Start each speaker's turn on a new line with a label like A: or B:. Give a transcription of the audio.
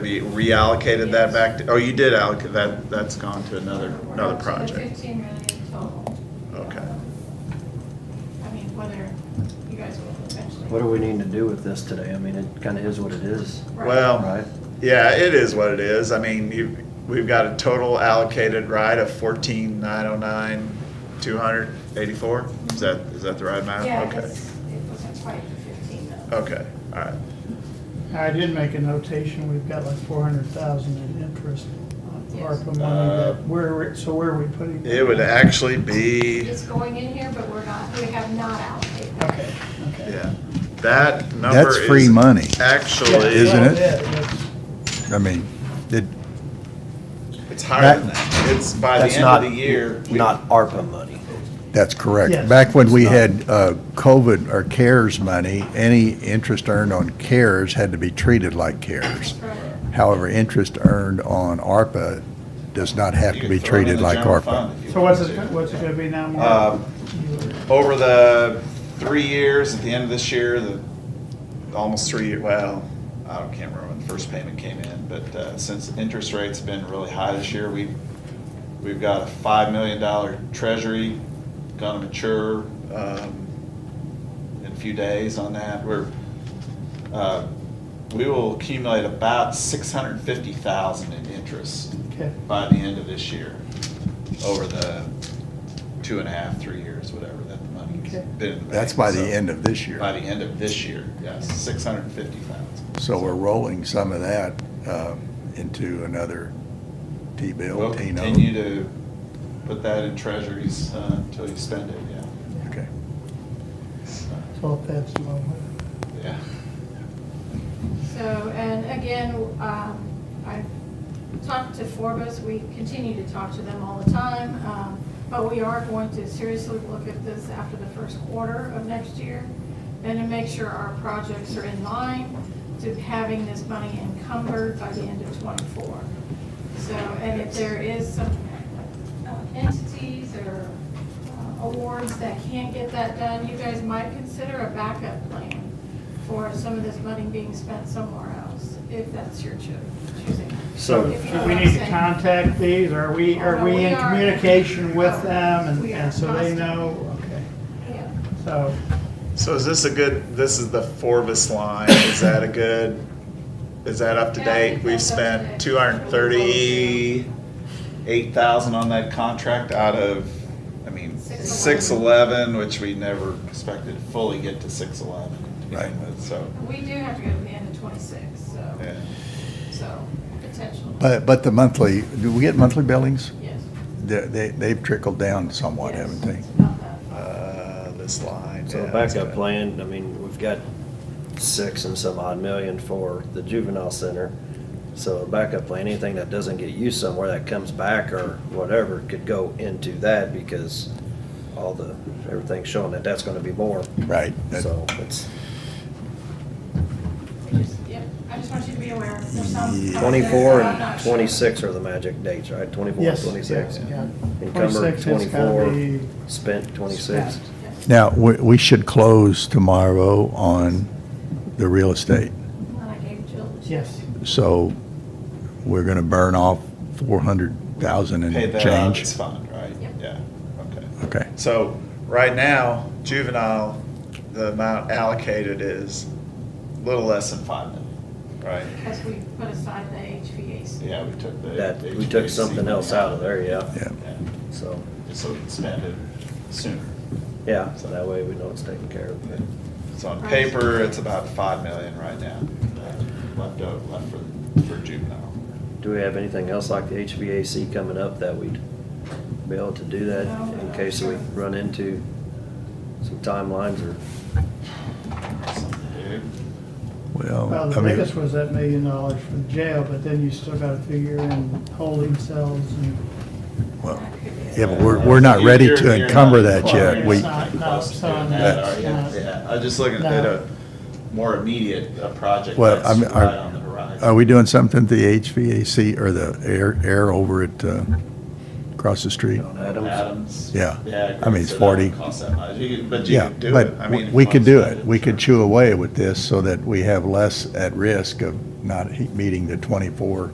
A: you reallocated that back, to- oh, you did allocate, that, that's gone to another, another
B: So
A: project.
B: Fifteen million total.
A: Okay.
B: I mean, whether you guys will eventually.
C: What do we need to do with this today? I mean, it kind of is what it is,
B: Right.
A: Well,
C: right?
A: yeah, it is what it is. I mean, you, we've got a total allocated ride of fourteen nine oh nine, two hundred eighty-four? Is that, is that the right amount? uh,
B: Yeah,
A: Okay. Uh,
B: it's- it wasn't quite the fifteen though.
A: Okay, all right.
D: I did make a notation, we've got like four hundred thousand in interest on
B: Yes.
D: ARPA
A: Uh,
D: money, that where, we- so where are we putting?
A: It would actually be,
B: It's going in here, but we're not, we have not allocated.
D: Okay, okay.
A: yeah, that number
E: That's free
A: is
E: money.
A: Actually,
E: Isn't it? I mean, it,
A: It's higher than
E: That-
A: that. It's by the
C: That's
A: end
C: not
A: of the year. we-
C: Not ARPA money.
E: that's
D: Yes.
E: correct. Back when we had uh, COVID or CARES money, any interest earned on CARES had to be treated like CARES.
B: Right.
E: However, interest earned on ARPA does not have
A: you
E: to
A: can
E: be
A: throw it in
E: treated
A: the
E: like
A: general
E: ARPA.
A: fund if you
D: So what's
A: want
D: it,
A: to.
D: what's it gonna be now, Mark?
A: Um, Over the three years, at the end of this year, the, almost three, well, I don't- can't remember when the first payment came in, but uh, since interest rates have been really high this year, we, we've got a five million dollar treasury gonna mature um, in a few days on that. We're, uh, we will accumulate about six hundred and fifty thousand in interest
D: Okay.
A: by the end of this year, over the two and a half, three years, whatever, that the money's
D: Okay.
A: been in the bank.
E: That's by the
A: So,
E: end of this year.
A: By the end of this year, yes, six hundred and fifty thousand.
E: So we're rolling some of that um, into another T-bill,
A: We'll
E: T-note.
A: continue to put that in treasuries uh, until you spend it, yeah.
E: Okay.
A: So,
D: So if that's the one.
A: Yeah.
B: So, and again, um, I've talked to Forbes, we continue to talk to them all the time, um, but we are going to seriously look at this after the first quarter of next year, and to make sure our projects are in line to having this money encumbered by the end of twenty-four. So, and if there is some uh, entities or uh, awards that can't get that done, you guys might consider a backup plan for some of this money being spent somewhere else, if that's your choo- choosing.
C: So-
B: If you know
D: Do we
B: what I'm
D: need to
B: saying.
D: contact these, are we,
B: Oh,
D: are
B: no, we
D: we in
B: are-
D: communication with
B: Oh,
D: them, and,
B: we are
D: and so they
B: constant.
D: know, okay,
B: Yeah.
D: so.
A: So is this a good, this is the Forvis line, is that a good, is that up to
B: Yeah, I think
A: date? We've
B: that's up to
A: spent
B: date.
A: two hundred and thirty-eight thousand on that contract out of, I mean, six eleven, which we never expected to fully get to six eleven to begin
E: Right.
A: with, so.
B: We do have to go to the end of twenty-six, so,
A: yeah.
B: so, potential.
E: But, but the monthly, do we get monthly billings?
B: Yes.
E: They, they- they've trickled down somewhat,
B: Yes,
E: haven't they?
B: it's about that.
A: Uh, this line.
C: So
A: yeah, that's
C: backup
A: it.
C: plan, I mean, we've got six and some odd million for the juvenile center. So a backup plan, anything that doesn't get used somewhere that comes back or whatever could go into that because all the, everything's showing that that's gonna be more.
E: Right. that-
C: So it's
B: We just, yep, I just want you to be aware, there's some.
E: Yeah.
C: twenty-four
B: I'm not
C: and
B: sure.
C: twenty-six are the magic dates, right? Twenty-four, and
D: Yes,
C: twenty-six.
D: yes, yeah.
C: Encumbered
D: 26 has gotta
C: twenty-four,
D: be
C: spent twenty-six.
D: spent.
B: Yes.
E: Now, we, we should close tomorrow on the real estate.
B: And then I gave Jill the check.
D: Yes.
E: So we're gonna burn off four hundred thousand and
A: Pay that out of this
E: change.
A: fund, right?
B: Yep.
A: Yeah, okay.
E: Okay.
A: So, right now, juvenile, the amount allocated is a little less than five million, right?
B: Because we put aside the HVAC.
A: Yeah, we took the.
C: That, we took something else out of there, yeah.
E: Yeah.
A: Yeah,
C: So,
A: just so we can spend it sooner.
C: yeah, so that way we know it's taken care of.
A: So on paper, it's about five million right now, uh, left out, left for, for juvenile.
C: Do we have anything else like the HVAC coming up that we'd be able to do that
B: No,
C: in
B: no.
C: case we run into some timelines or?
A: Something to do.
D: Well,
E: Well, I
D: the
E: mean,
D: biggest was that million dollars for the jail, but then you still gotta figure in holding cells and.
E: well,
B: That could be it.
E: yeah, but we're, we're not ready
A: You're- you're-
E: to
A: you're not
E: encumber that yet.
A: required.
E: We,
A: It's not- not
D: Close to
A: so that,
D: doing that,
A: are you?
D: no.
A: Yeah, I was just looking at
D: No.
A: a more immediate uh, project
E: well, I
A: that's
E: mean,
A: right on the
E: are,
A: horizon.
E: are we doing something to the HVAC or the air, air over at, uh, across the street?
C: on
A: Adams.
E: Yeah.
A: Yeah.
E: I mean, it's
A: so that wouldn't
E: 40.
A: cost that much. You could- But you
E: Yeah,
A: could do it. I
E: but
A: mean,
E: we could do it. We
A: cost-effective,
E: could
A: sure.
E: chew away with this so that we have less at risk of not he- meeting the 24